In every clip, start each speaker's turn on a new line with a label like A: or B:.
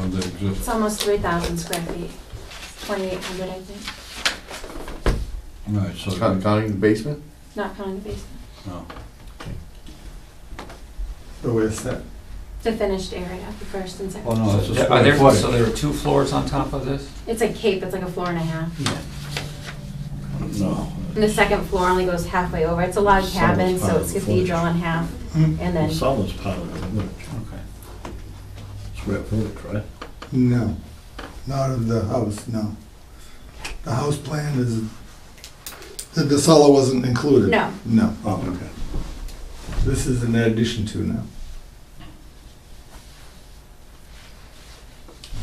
A: on the exist,
B: It's almost three thousand square feet, twenty-eight hundred, I think,
A: right, so,
C: Count-
A: no,
C: Counting the basement?
B: not counting the basement,
D: Oh, wait, it's that,
B: the finished area, the first and
A: oh,
B: second.
A: no, that's a
E: Are
A: square
E: there,
A: foot.
E: so there are two floors on top of this?
B: It's a cape, it's like a floor and a half,
A: No,
B: and the second floor only goes halfway over, it's a log
F: Sounds
B: cabin,
F: fine,
B: so it's cathedral in half, and then,
F: Some is part of it,
E: Okay.
F: but square footage, right?
D: no, not of the house, no. The house plan is, the, the cellar wasn't included?
B: no,
D: No, oh, okay. This is an addition to now.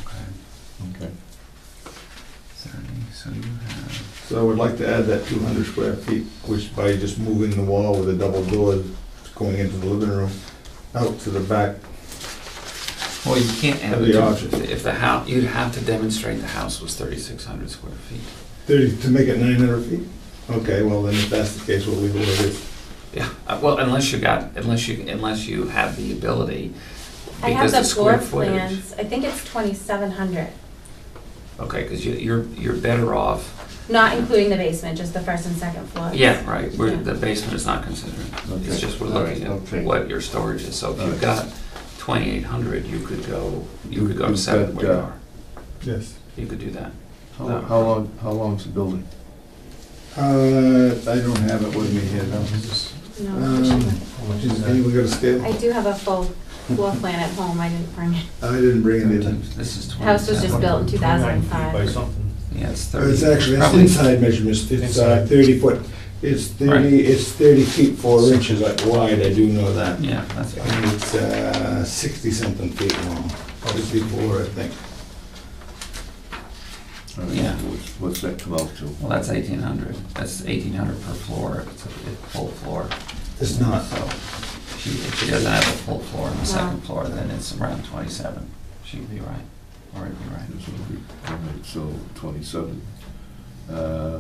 E: Okay.
C: Okay.
E: Thirty, so you have,
D: So I would like to add that two hundred square feet, which by just moving the wall with a double door going into the living room, out to the back.
E: well, you can't add
D: Have the option.
E: the, if the house, you'd have to demonstrate the house was thirty-six hundred square feet.
D: Thirty, to make it nine hundred feet? Okay, well, then if that's the case, we'll leave it where it is.
E: Yeah, uh, well, unless you got, unless you, unless you have the ability,
B: I have
E: because
B: the
E: the
B: floor
E: square footage.
B: plans, I think it's twenty-seven hundred,
E: Okay, because you, you're, you're better off,
B: not including the basement, just the first and second floor.
E: yeah, right, where
B: Yeah.
E: the basement is not considered. It's
C: Okay.
E: just we're
C: All right,
E: looking at
C: okay.
E: what your storage is, so if
C: All
E: you've
C: right.
E: got twenty-eight hundred, you could go, you could go to
C: You've
E: seven
C: got,
E: where you
C: uh,
E: are,
D: Yes.
E: you could do that.
C: How, how long, how long's the building?
D: Uh, I don't have it with me here, no.
B: No, I
D: Um,
B: shouldn't.
D: Is anyone got a scale?
B: I do have a full floor plan at home, I didn't bring it,
D: I didn't bring it in.
E: This is twenty-seven.
B: house was just built in two thousand and
F: By
B: five.
F: something.
E: Yeah, it's
D: Oh, It's
E: thirty.
D: actually, it's
E: probably-
D: inside measurements, it's uh,
F: Inside.
D: thirty foot, it's
E: Right.
D: thirty, it's thirty feet, four inches wide, I do know that.
E: Yeah, that's,
D: And it's uh, sixty something feet long, fifty-four, I think.
C: All right,
E: Yeah.
C: What's, what's that come out to?
E: well, that's eighteen hundred, that's eighteen hundred per floor, if it's a if full floor.
D: It's not,
E: So if she, if she doesn't have a full floor on the second
B: Wow.
E: floor, then it's around twenty-seven. She would be right, or it'd be right.
C: This will be- all right, So twenty-seven, uh,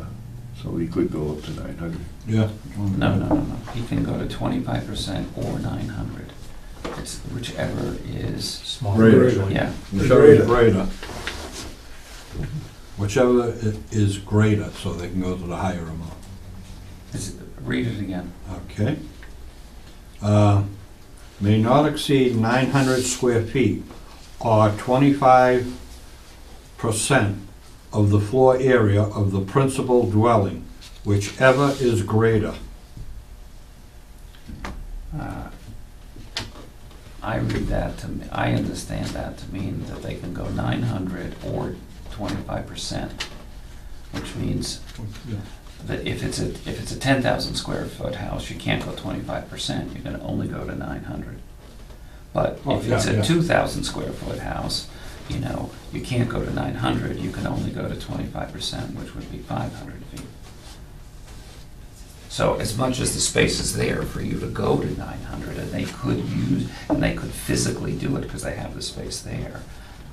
C: so we could go up to nine hundred.
A: yeah.
E: No, no, no, no. You can go to twenty-five percent or nine hundred. It's whichever is,
F: Small.
A: Greater.
F: originally.
E: yeah,
A: Whichever is
D: Greater.
A: greater. Whichever i- is greater, so they can go to the higher amount,
E: it's, read it again.
A: okay? Uh, May not exceed nine hundred square feet or twenty-five percent of the floor area of the principal dwelling, whichever is greater.
E: Uh, I read that to, me- I understand that to mean that they can go nine hundred or twenty-five percent, which means that if it's a, if it's a ten thousand square foot house, you can't go twenty-five percent, you can only go to nine hundred. But
A: Oh,
E: if it's
A: yeah, yeah.
E: a two thousand square foot house, you know, you can't go to nine hundred, you can only go to twenty-five percent, which would be five hundred feet. So as much as the space is there for you to go to nine hundred, and they could use, and they could physically do it because they have the space there,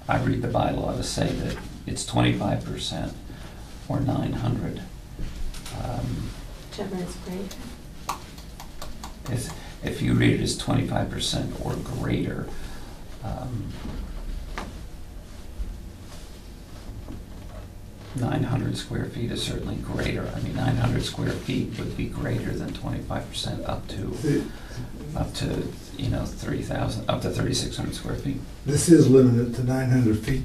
E: I read the bylaw to say that it's twenty-five percent or nine hundred. Um,
B: Whichever is great.
E: If, if you read it as twenty-five percent or greater, um, nine hundred square feet is certainly greater. I mean, nine hundred square feet would be greater than twenty-five percent up to,
D: Th-
E: up to, you know, thirty thousand, up to thirty-six hundred square feet.
D: this is limited to nine hundred feet.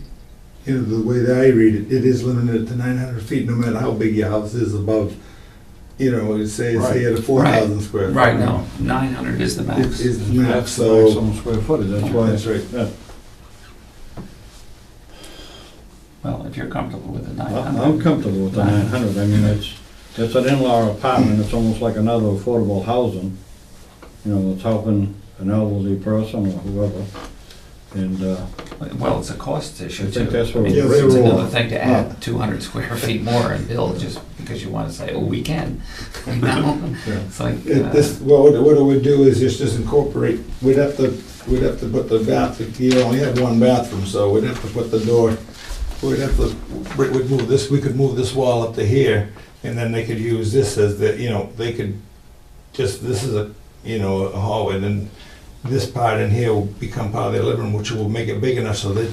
D: You know, the way that I read it, it is limited to nine hundred feet, no matter how big your house is above, you know, say, say at a four thousand square. foot.
E: Right now, nine hundred is the
D: It
E: max.
D: is not,
A: That's the
D: so,
A: maximum square footage, that's why
D: that's
A: it's
D: right.
E: Well, if you're comfortable with the nine
A: I- I'm
E: hundred.
A: comfortable with the nine hundred, I mean, it's, it's an in-law apartment, it's almost like another affordable housing. You know, it's helping an elderly person or whoever, and, uh,
E: Well, it's a cost issue
A: I
E: too.
A: think that's what
E: I mean,
D: Yeah, they
E: It's
D: were all-
E: another thing to add two hundred square feet more and build just because you wanna say, oh, we can, you know? It's like,
D: It- This,
E: uh,
D: well, what what it would do is just, just incorporate, we'd have to, we'd have to put the bath, you only have one bathroom, so we'd have to put the door, we'd have to, we- we'd move this, we could move this wall up to here, and then they could use this as the, you know, they could, just, this is a, you know, a hallway, and then this part in here will become part of their living room, which will make it big enough so that